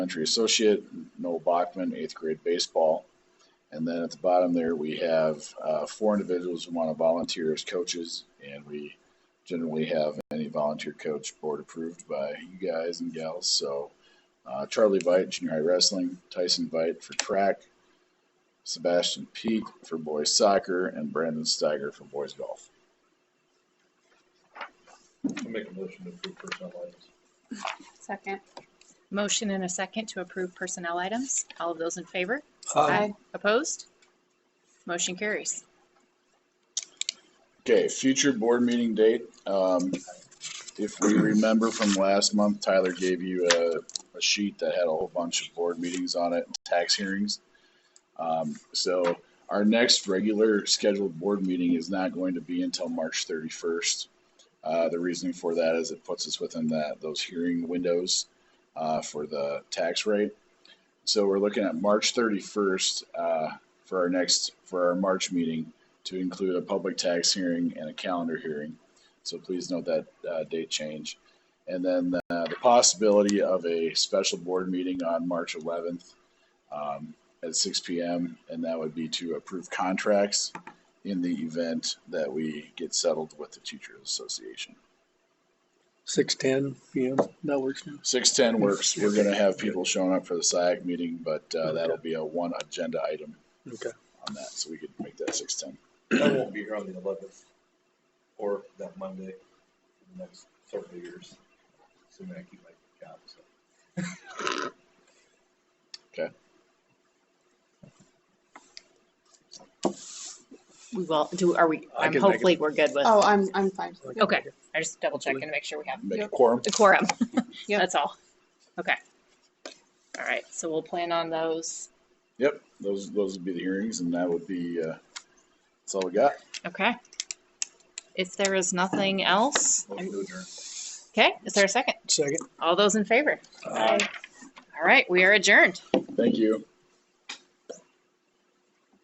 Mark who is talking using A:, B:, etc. A: Elementary Associate, Noel Bachman, eighth grade baseball. And then at the bottom there, we have uh, four individuals who want to volunteer as coaches, and we generally have any volunteer coach board approved by you guys and gals. So uh, Charlie Vite, junior high wrestling, Tyson Vite for track, Sebastian Peak for boys soccer, and Brandon Steiger for boys golf.
B: I'll make a motion to approve personnel items.
C: Second.
D: Motion and a second to approve personnel items. All of those in favor?
C: Aye.
D: Opposed? Motion carries.
A: Okay, future board meeting date. Um, if we remember from last month, Tyler gave you a, a sheet that had a whole bunch of board meetings on it, tax hearings. Um, so our next regular scheduled board meeting is not going to be until March thirty-first. Uh, the reasoning for that is it puts us within that, those hearing windows, uh, for the tax rate. So we're looking at March thirty-first, uh, for our next, for our March meeting to include a public tax hearing and a calendar hearing. So please note that uh, date change. And then uh, the possibility of a special board meeting on March 11th um, at 6 p.m. And that would be to approve contracts in the event that we get settled with the Teachers Association.
E: Six ten PM, that works now.
A: 610 works. We're going to have people showing up for the SIAC meeting, but uh, that'll be a one agenda item
E: Okay.
A: on that. So we could make that 610.
B: I won't be here on the eleventh or that Monday for the next several years. So I keep my job, so.
D: We will, do, are we,
E: I
D: I'm
E: can make it.
D: hopefully we're good with,
C: Oh, I'm, I'm fine.
D: okay, I just double checking to make sure we have
A: Make a
C: Yep.
A: quorum.
D: the quorum.
C: Yep.
D: That's all. Okay. All right, so we'll plan on those.
A: Yep, those those would be the hearings, and that would be uh, that's all we got.
D: Okay. If there is nothing else,
B: Motion to adjourn.
D: okay, is there a second?
E: Second.
D: All those in favor?
C: Aye.
D: All right, we are adjourned.
A: Thank you.